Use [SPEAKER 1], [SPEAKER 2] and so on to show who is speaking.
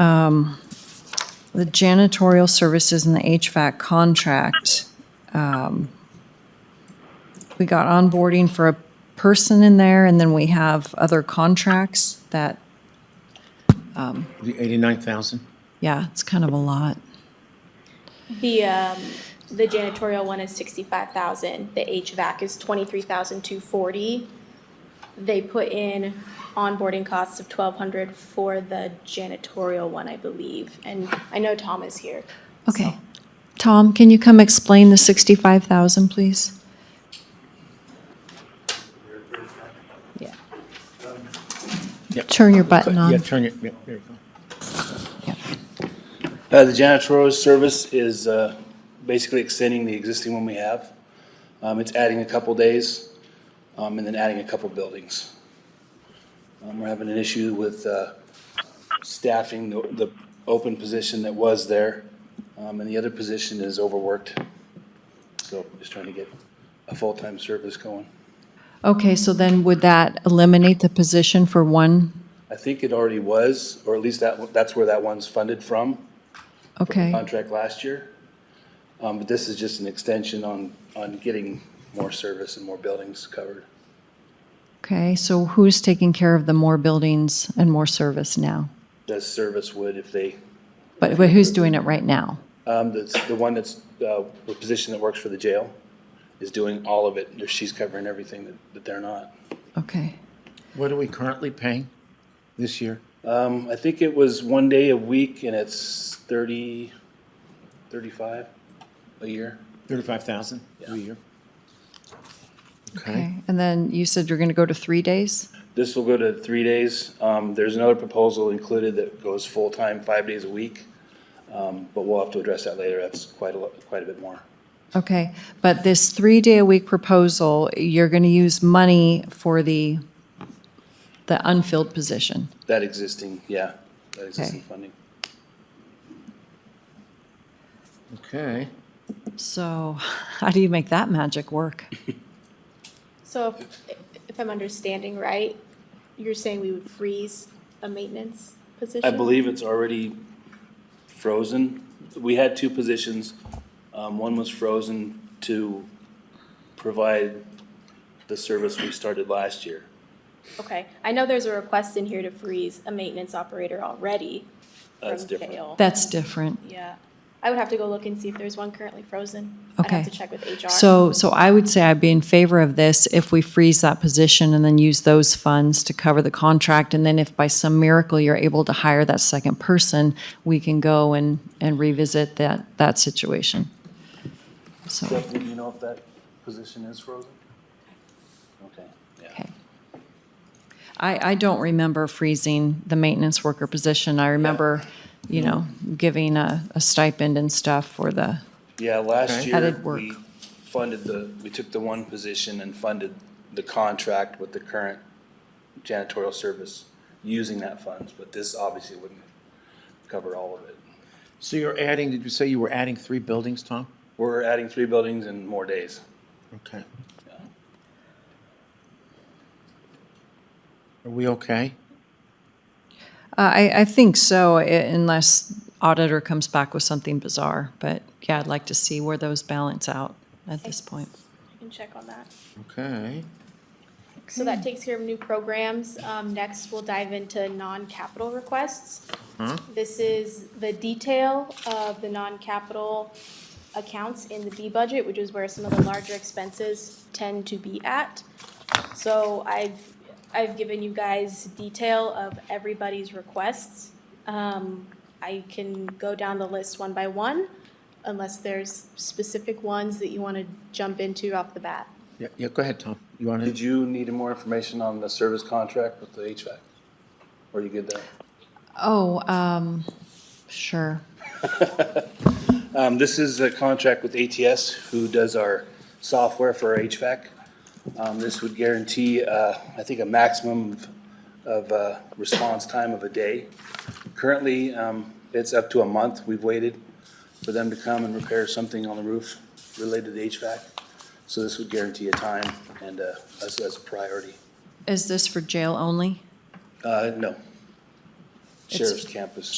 [SPEAKER 1] um, the janitorial services and the HVAC contract. um, We got onboarding for a person in there, and then we have other contracts that,
[SPEAKER 2] The 89,000?
[SPEAKER 1] yeah, it's kind of a lot.
[SPEAKER 3] The, um, the janitorial one is sixty-five thousand, the HVAC is twenty-three thousand two forty. They put in onboarding costs of twelve hundred for the janitorial one, I believe, and I know Tom is here.
[SPEAKER 1] Okay. Tom, can you come explain the 65,000, please? Yeah.
[SPEAKER 2] Yep.
[SPEAKER 1] Turn your button
[SPEAKER 2] Yeah,
[SPEAKER 1] on.
[SPEAKER 2] turn it, yeah, there you go.
[SPEAKER 4] Uh, The janitorial service is uh, basically extending the existing one we have. Um, It's adding a couple days um, and then adding a couple buildings. Um, We're having an issue with uh, staffing the the open position that was there, um, and the other position is overworked. So just trying to get a full-time service going.
[SPEAKER 1] Okay, so then would that eliminate the position for one?
[SPEAKER 4] I think it already was, or at least that, one- that's where that one's funded from.
[SPEAKER 1] Okay,
[SPEAKER 4] contract last year. Um, But this is just an extension on, on getting more service and more buildings covered.
[SPEAKER 1] okay, so who's taking care of the more buildings and more service now?
[SPEAKER 4] That service would if they,
[SPEAKER 1] But but who's doing it right now?
[SPEAKER 4] um, that's the one that's, uh, the position that works for the jail is doing all of it. She's covering everything that, that they're not.
[SPEAKER 1] Okay,
[SPEAKER 2] What are we currently paying this year?
[SPEAKER 4] Um, I think it was one day a week and it's thirty, thirty-five a year.
[SPEAKER 2] 35,000 a year? Okay.
[SPEAKER 1] okay. And then you said you're going to go to three days?
[SPEAKER 4] This will go to three days. Um, there's another proposal included that goes full-time, five days a week. Um, but we'll have to address that later. That's quite a, lot- quite a bit more.
[SPEAKER 1] Okay, but this three-day-a-week proposal, you're going to use money for the, the unfilled position.
[SPEAKER 4] That existing, yeah, that existing
[SPEAKER 1] Okay.
[SPEAKER 4] funding.
[SPEAKER 2] Okay.
[SPEAKER 1] So how do you make that magic work?
[SPEAKER 3] So if, if I'm understanding right, you're saying we would freeze a maintenance
[SPEAKER 4] I
[SPEAKER 3] position?
[SPEAKER 4] believe it's already frozen. We had two positions. Um, one was frozen to provide the service we started last year.
[SPEAKER 3] Okay, I know there's a request in here to freeze a maintenance operator already from
[SPEAKER 4] That's different.
[SPEAKER 3] jail.
[SPEAKER 1] That's different.
[SPEAKER 3] Yeah, I would have to go look and see if there's one currently frozen. I'd
[SPEAKER 1] Okay.
[SPEAKER 3] have to check with HR.
[SPEAKER 1] So, so I would say I'd be in favor of this if we freeze that position and then use those funds to cover the contract. And then if by some miracle you're able to hire that second person, we can go and, and revisit that, that situation. So,
[SPEAKER 4] Jeff, do you know if that position is frozen? Okay, yeah.
[SPEAKER 1] okay. I, I don't remember freezing the maintenance worker position. I remember, you know, giving a, a stipend and stuff for the,
[SPEAKER 4] Yeah, last
[SPEAKER 2] Okay.
[SPEAKER 4] year,
[SPEAKER 1] Added work.
[SPEAKER 4] we funded the, we took the one position and funded the contract with the current janitorial service using that funds, but this obviously wouldn't cover all of it.
[SPEAKER 2] So you're adding, did you say you were adding three buildings, Tom?
[SPEAKER 4] We're adding three buildings and more days.
[SPEAKER 2] Okay. Are we okay?
[SPEAKER 1] Uh, I, I think so, i- unless auditor comes back with something bizarre. But yeah, I'd like to see where those balance out at this point.
[SPEAKER 3] I can check on that.
[SPEAKER 2] Okay.
[SPEAKER 3] So that takes care of new programs. Um, next, we'll dive into non-capital requests. This is the detail of the non-capital accounts in the B budget, which is where some of the larger expenses tend to be at. So I've, I've given you guys detail of everybody's requests. Um, I can go down the list one by one, unless there's specific ones that you want to jump into off the bat.
[SPEAKER 2] Yeah, yeah, go ahead, Tom. You want
[SPEAKER 4] Did
[SPEAKER 2] to?
[SPEAKER 4] you need more information on the service contract with the HVAC? Or you good there?
[SPEAKER 1] Oh, um, sure.
[SPEAKER 4] Um, this is a contract with ATS, who does our software for our HVAC. Um, this would guarantee, uh, I think, a maximum of- of, uh, response time of a day. Currently, um, it's up to a month, we've waited for them to come and repair something on the roof related to HVAC. So this would guarantee a time and, uh, us as a priority.
[SPEAKER 1] Is this for jail only?
[SPEAKER 4] Uh, no. Sheriff's campus.